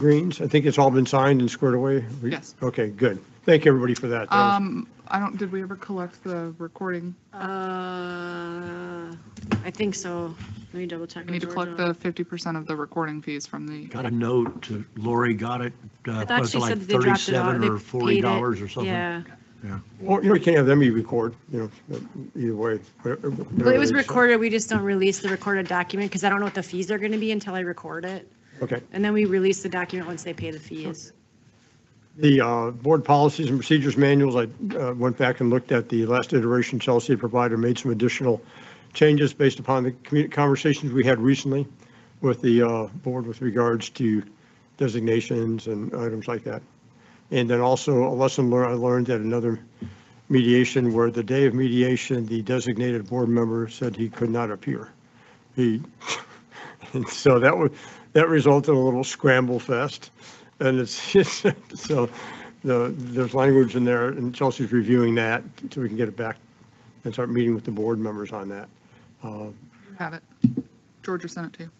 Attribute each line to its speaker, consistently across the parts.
Speaker 1: greens? I think it's all been signed and squared away? We-
Speaker 2: Yes.
Speaker 1: Okay, good. Thank you, everybody, for that. That was-
Speaker 2: Um, I don't, did we ever collect the recording?
Speaker 3: Uh, I think so. Let me double check.
Speaker 2: We need to
Speaker 3: with
Speaker 2: collect
Speaker 3: Georgia.
Speaker 2: the fifty percent of the recording fees from the,
Speaker 4: Got a note to, Lori got it, uh,
Speaker 3: thought
Speaker 4: was
Speaker 3: she
Speaker 4: it like
Speaker 3: said that they dropped it off.
Speaker 4: 37
Speaker 3: They
Speaker 4: or
Speaker 3: paid it.
Speaker 4: 40 dollars or something?
Speaker 3: Yeah. Um,
Speaker 1: Well, you know, you can't have them you record, you know, either way. whatever-
Speaker 3: Well, it
Speaker 1: whatever
Speaker 3: was
Speaker 1: they say.
Speaker 3: recorded. We just don't release the recorded document because I don't know what the fees are going to be until I record it.
Speaker 1: Okay.
Speaker 3: And then we release the document once they pay the fees.
Speaker 1: The uh, board policies and procedures manuals, I uh, went back and looked at the last iteration Chelsea had provided, made some additional changes based upon the commu- conversations we had recently with the uh, board with regards to designations and items like that. And then also a lesson learned, I learned at another mediation where the day of mediation, the designated board member said he could not appear. He, and so that was, that resulted in a little scramble fest. And it's, it's- so the, there's language in there and Chelsea's reviewing that so we can get it back and start meeting with the board members on that. Uh,
Speaker 2: have it. Georgia sent it to you.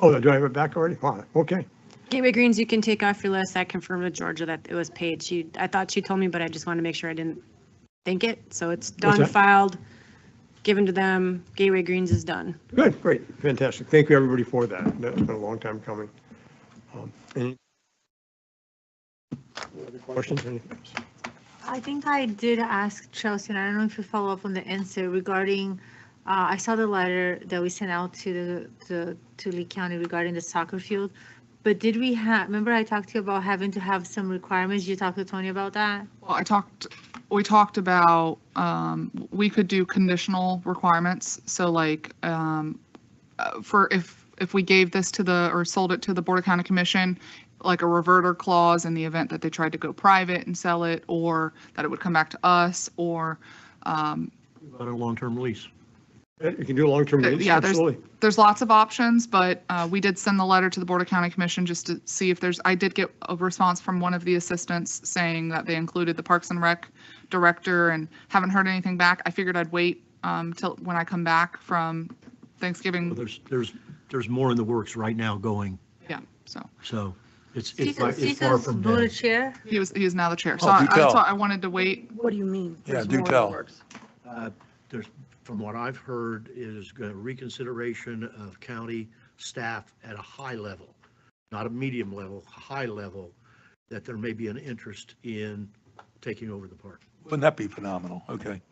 Speaker 1: Oh, do I have it back already? Wow, okay.
Speaker 3: Gateway Greens, you can take off your list. I confirmed with Georgia that it was paid. She, I thought she told me, but I just wanted to make sure I didn't think it. So it's done,
Speaker 1: that?
Speaker 3: filed, given to them. Gateway Greens is done.
Speaker 1: Good, great, fantastic. Thank you, everybody, for that. That's been a long time coming. Um, Any other questions? Any-
Speaker 5: I think I did ask Chelsea, and I don't know if you follow up on the answer regarding, uh, I saw the letter that we sent out to the, to, to Lee County regarding the soccer field. But did we have, remember I talked to you about having to have some requirements? You talked to Tony about that?
Speaker 2: Well, I talked, we talked about, um, we could do conditional requirements. So like, um, uh, for if, if we gave this to the, or sold it to the Board of County Commission, like a reverter clause in the event that they tried to go private and sell it, or that it would come back to us, or, um,
Speaker 4: On a long-term lease.
Speaker 1: Yeah, You can do a long-term
Speaker 2: Uh,
Speaker 1: lease,
Speaker 2: yeah, there's-
Speaker 1: absolutely.
Speaker 2: there's lots of options, but uh, we did send the letter to the Board of County Commission just to see if there's, I did get a response from one of the assistants saying that they included the Parks and Rec director and haven't heard anything back. I figured I'd wait um, till, when I come back from
Speaker 4: Well,
Speaker 3: Mm.
Speaker 2: Thanksgiving.
Speaker 4: There's, there's, there's more in the works right now going,
Speaker 2: Yeah, so
Speaker 4: so it's, it's far-
Speaker 5: Seasons,
Speaker 4: it's far
Speaker 5: Seasons
Speaker 4: from
Speaker 5: voted
Speaker 4: dead.
Speaker 5: chair?
Speaker 2: he was, he is now the chair. So
Speaker 6: Oh,
Speaker 2: I,
Speaker 6: do
Speaker 2: I- so
Speaker 6: tell.
Speaker 2: I wanted to wait.
Speaker 7: What do you mean?
Speaker 6: Yeah,
Speaker 7: There's
Speaker 6: do
Speaker 7: more
Speaker 6: tell.
Speaker 7: works.
Speaker 4: Uh, There's, from what I've heard, is a reconsideration of county staff at a high level, not a medium level, high level, that there may be an interest in taking over the park,
Speaker 6: Wouldn't that be phenomenal? Okay.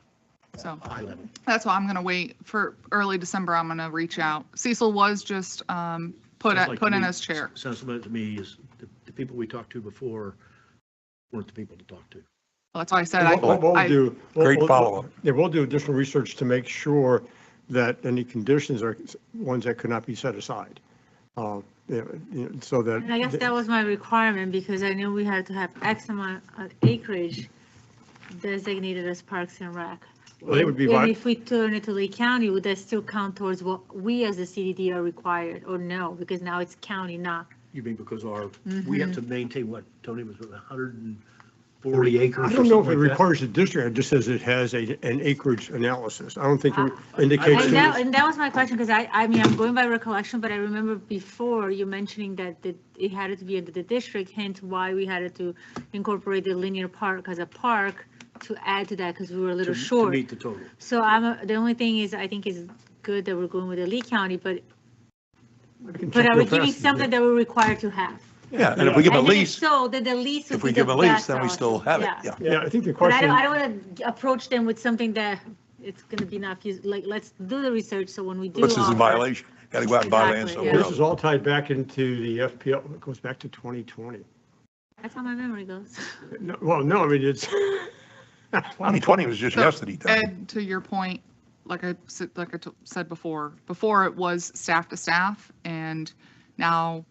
Speaker 2: So
Speaker 4: high level.
Speaker 2: that's why I'm going to wait for early December. I'm going to reach out. Cecil was just um, put,
Speaker 4: Sounds
Speaker 2: at-
Speaker 4: like
Speaker 2: put
Speaker 4: to
Speaker 2: in
Speaker 4: me-
Speaker 2: as chair.
Speaker 4: Sounds like to me is the, the people we talked to before weren't the people to talk to.
Speaker 2: That's why I said I.
Speaker 1: What what we'll
Speaker 2: I-
Speaker 1: do. we'll-
Speaker 6: Great
Speaker 1: we'll-
Speaker 6: follow-up.
Speaker 1: Yeah, we'll do additional research to make sure that any conditions are ones that could not be set aside. Uh, yeah, you know, So that.
Speaker 5: And I guess that was my requirement because I knew we had to have X amount of acreage designated as parks and rec.
Speaker 1: Well, They would be,
Speaker 5: And
Speaker 1: vi-
Speaker 5: if we turn it to Lee County, would that still count towards what we as a CDD are required or no? Because now it's county, not
Speaker 4: You mean because our, we
Speaker 2: Mm-hmm.
Speaker 4: have to maintain what, Tony, was it 140 acres or
Speaker 1: I
Speaker 4: something
Speaker 1: don't know if it
Speaker 4: like that?
Speaker 1: requires the district, it just says it has a, an acreage analysis. I don't think it
Speaker 4: I
Speaker 5: Uh,
Speaker 1: indicates.
Speaker 5: And
Speaker 4: see.
Speaker 5: that,
Speaker 1: that-
Speaker 5: and that was my question, because I, I mean, I'm going by recollection, but I remember before you mentioning that the- it had to be under the district, hence why we had to incorporate the linear park as a park to add to that, because we were a
Speaker 4: To-
Speaker 5: little
Speaker 4: To
Speaker 5: short.
Speaker 4: meet the total.
Speaker 5: So I'm, a- the only thing is, I think is good that we're going with the Lee County, but,
Speaker 1: I can
Speaker 5: but
Speaker 1: check
Speaker 5: are
Speaker 1: real
Speaker 5: we giving
Speaker 1: fast.
Speaker 5: something that we're required to have?
Speaker 6: Yeah, and if we give a
Speaker 5: And then if
Speaker 6: lease,
Speaker 5: So that the lease would
Speaker 6: if
Speaker 5: be
Speaker 6: we
Speaker 5: the
Speaker 6: give a lease,
Speaker 5: best
Speaker 6: then we
Speaker 5: option.
Speaker 6: still have it, yeah.
Speaker 1: Yeah, I think the
Speaker 5: But I
Speaker 1: question,
Speaker 5: don't, I don't want to approach them with something that it's going to be not, fus- like, let's do the research, so when we do.
Speaker 6: Puts us in
Speaker 5: offer-
Speaker 6: violation, gotta go out and buy land
Speaker 5: Exactly,
Speaker 6: somewhere
Speaker 5: yeah.
Speaker 1: this is
Speaker 6: else.
Speaker 1: all tied back into the FPL, it goes back to 2020.
Speaker 5: That's how my memory goes.
Speaker 1: No, Well, no, I mean, it's,
Speaker 6: 2020 was just
Speaker 2: So,
Speaker 6: yesterday, Tony.
Speaker 2: Ed, to your point, like I said, like I t- said before, before it was staff to staff and now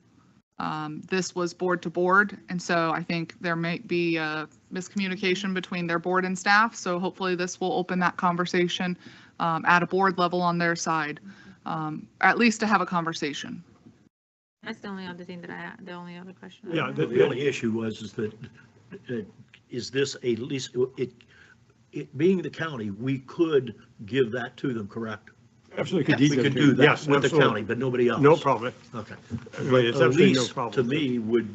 Speaker 2: um, this was board to board. And so I think there may be a miscommunication between their board and staff. So hopefully this will open that conversation um, at a board level on their side, um, at least to have a conversation.
Speaker 5: That's the only other thing that I, had. the only other question. I
Speaker 1: yeah.
Speaker 5: had.
Speaker 1: the-
Speaker 4: The only issue was is that, uh, is this a lease, it, it being the county, we could give that to them, correct?
Speaker 1: Absolutely.
Speaker 4: We
Speaker 1: deed that
Speaker 4: could
Speaker 1: to-
Speaker 4: do
Speaker 1: yes,
Speaker 4: that with the
Speaker 1: absolutely.
Speaker 4: county, but nobody else.
Speaker 1: No problem.
Speaker 4: Okay.
Speaker 1: I mean, it's
Speaker 4: A
Speaker 1: absolutely no
Speaker 4: lease,
Speaker 1: problem.
Speaker 4: To me, would